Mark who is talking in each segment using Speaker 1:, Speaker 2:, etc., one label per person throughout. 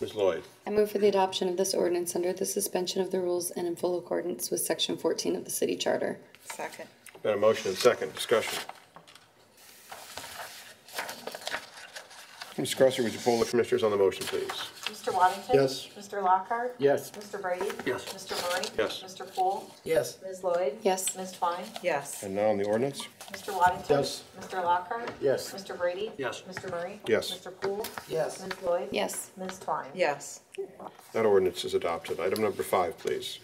Speaker 1: Ms. Lloyd,
Speaker 2: I move for the adoption of this ordinance under the suspension of the rules and in full accordance with section fourteen of the city charter.
Speaker 3: Second.
Speaker 1: got a motion and second discussion. Ms. Crosser, would you poll the commissioners on the motion, please?
Speaker 4: Mr. Waddington?
Speaker 5: Yes.
Speaker 4: Mr. Lockhart?
Speaker 5: Yes.
Speaker 4: Mr. Brady?
Speaker 5: Yes.
Speaker 4: Mr. Murray?
Speaker 1: Yes.
Speaker 4: Mr. Poole?
Speaker 5: Yes.
Speaker 4: Ms. Lloyd?
Speaker 2: Yes.
Speaker 4: Ms. Twine?
Speaker 3: Yes.
Speaker 1: And now on the ordinance?
Speaker 4: Mr. Waddington?
Speaker 5: Yes.
Speaker 4: Mr. Lockhart?
Speaker 5: Yes.
Speaker 4: Mr. Brady?
Speaker 5: Yes.
Speaker 4: Mr. Murray?
Speaker 1: Yes.
Speaker 4: Mr. Poole?
Speaker 5: Yes.
Speaker 4: Ms. Lloyd?
Speaker 2: Yes.
Speaker 4: Ms. Twine?
Speaker 3: Yes.
Speaker 1: That ordinance is adopted. Item number five, please.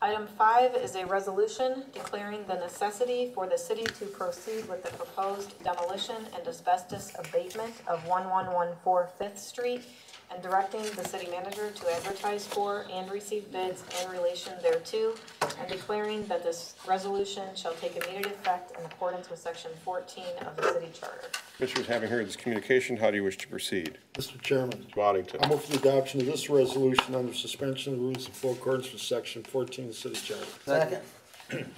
Speaker 4: Item five is a resolution declaring the necessity for the city to proceed with the proposed demolition and asbestos abatement of 1114 Fifth Street and directing the city manager to advertise for and receive bids in relation thereto, and declaring that this resolution shall take immediate effect in accordance with section 14 of the city charter.
Speaker 1: Commissioners, having heard this communication, how do you wish to proceed?
Speaker 5: Mr. Chairman,
Speaker 1: Waddington.
Speaker 5: I move for the adoption of this resolution under suspension of the rules in full accordance with section fourteen of the city charter.
Speaker 6: Second.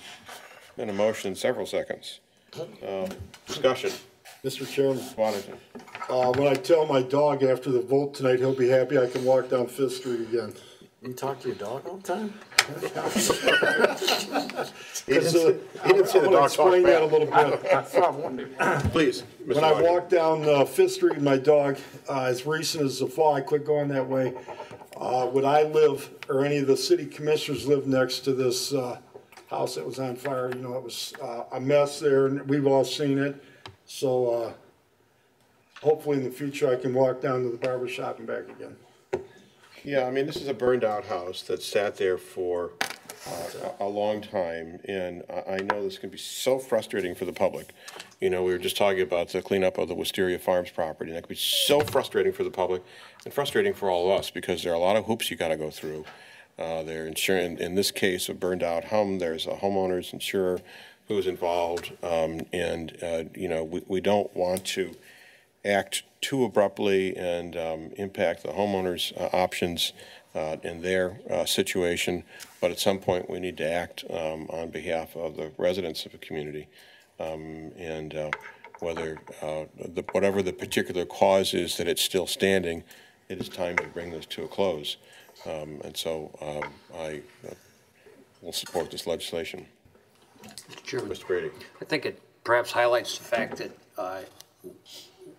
Speaker 1: Been a motion in several seconds. Um, Discussion.
Speaker 5: Mr. Chairman,
Speaker 1: Waddington.
Speaker 5: uh, when I tell my dog after the vote tonight, he'll be happy I can walk down Fifth Street again.
Speaker 6: You talk to your dog all the time?
Speaker 1: He didn't say- he didn't say the
Speaker 5: uh, I'm gonna
Speaker 1: dog talked
Speaker 5: Explain that a
Speaker 1: back.
Speaker 5: little bit.
Speaker 1: Please, Mr.
Speaker 5: When I
Speaker 1: Waddington.
Speaker 5: walk down uh, Fifth Street, my dog, uh, as recent as the fall, I quit going that way. Uh, Would I live, or any of the city commissioners live next to this uh, house that was on fire? You know, it was uh, a mess there, and we've all seen it. So uh, hopefully in the future, I can walk down to the barber shop and back again.
Speaker 1: Yeah, I mean, this is a burned-out house that sat there for uh, a a long time, and I I know this can be so frustrating for the public. You know, we were just talking about the cleanup of the Wisteria Farms property, and that could be so frustrating for the public and frustrating for all of us, because there are a lot of hoops you gotta go through. Uh, There insurance, in this case, a burned-out home, there's a homeowner's insurer who's involved, um, and, uh, you know, we we don't want to act too abruptly and um, impact the homeowners' uh, options uh, in their uh, situation. But at some point, we need to act um, on behalf of the residents of the community. Um, And uh, whether, uh, the- whatever the particular cause is that it's still standing, it is time to bring this to a close. Um, And so um, I uh, will support this legislation.
Speaker 6: Chairman,
Speaker 1: Mr. Brady?
Speaker 6: I think it perhaps highlights the fact that uh,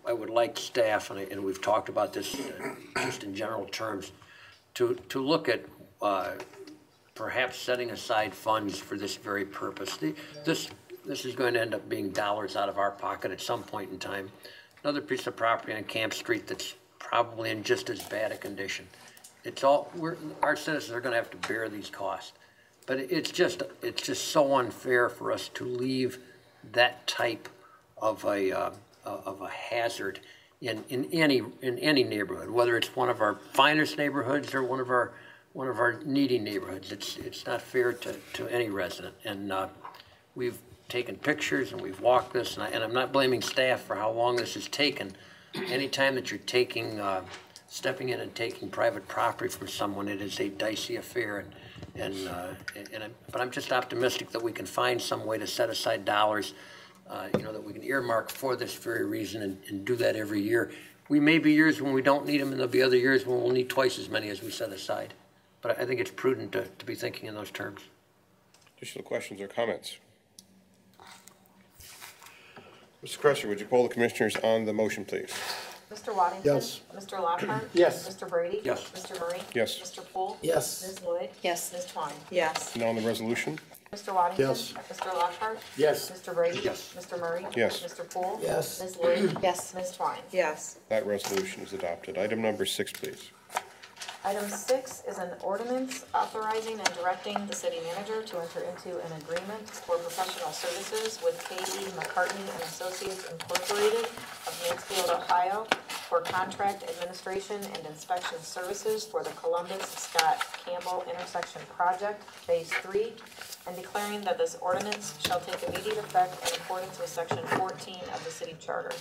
Speaker 6: I would like staff, and I- and we've talked about this uh, just in general terms, to, to look at uh, perhaps setting aside funds for this very purpose. The- This, this is going to end up being dollars out of our pocket at some point in time. Another piece of property on Camp Street that's probably in just as bad a condition. It's all, we're, our citizens are gonna have to bear these costs. But it- it's just, it's just so unfair for us to leave that type of a, uh, of a hazard in, in any, in any neighborhood, whether it's one of our finest neighborhoods or one of our, one of our needy neighborhoods. It's, it's not fair to, to any resident. And, uh, we've taken pictures and we've walked this, and I, and I'm not blaming staff for how long this has taken. Anytime that you're taking, uh, stepping in and taking private property from someone, it is a dicey affair. And, and, uh, and, I'm- but I'm just optimistic that we can find some way to set aside dollars uh, you know, that we can earmark for this very reason and, and do that every year. We may be years when we don't need them, and there'll be other years when we'll need twice as many as we set aside. But I I think it's prudent to, to be thinking in those terms.
Speaker 1: Additional questions or comments? Mr. Crusher, would you poll the commissioners on the motion, please?
Speaker 4: Mr. Waddington?
Speaker 5: Yes.
Speaker 4: Mr. Lockhart?
Speaker 5: Yes.
Speaker 4: Mr. Brady?
Speaker 6: Yes.
Speaker 4: Mr. Murray?
Speaker 1: Yes.
Speaker 4: Mr. Poole?
Speaker 6: Yes.
Speaker 4: Ms. Lloyd?
Speaker 2: Yes.
Speaker 4: Ms. Twine?
Speaker 3: Yes.
Speaker 1: Now on the resolution?
Speaker 4: Mr. Waddington?
Speaker 5: Yes.
Speaker 4: Mr. Lockhart?
Speaker 6: Yes.
Speaker 4: Mr. Brady?
Speaker 6: Yes.
Speaker 4: Mr. Murray?
Speaker 1: Yes.
Speaker 4: Mr. Poole?
Speaker 6: Yes.
Speaker 4: Ms. Lloyd?
Speaker 2: Yes.
Speaker 4: Ms. Twine?
Speaker 3: Yes.
Speaker 1: That resolution is adopted. Item number six, please.
Speaker 4: Item six is an ordinance authorizing and directing the city manager to enter into an agreement for professional services with K.E. McCartney and Associates Incorporated of Mansfield, Ohio for contract administration and inspection services for the Columbus Scott Campbell Intersection Project, Phase Three, and declaring that this ordinance shall take immediate effect in accordance with section fourteen of the city charter.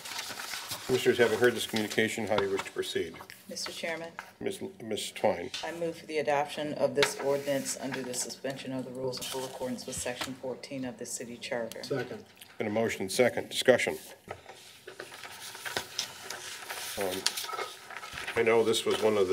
Speaker 1: Commissioners, having heard this communication, how do you wish to proceed?
Speaker 3: Mr. Chairman,
Speaker 1: Ms. L- Ms. Twine,
Speaker 3: I move for the adoption of this ordinance under the suspension of the rules in full accordance with section 14 of the city charter.
Speaker 5: Second.
Speaker 1: been a motion and second. Discussion. Um, I know this was one of the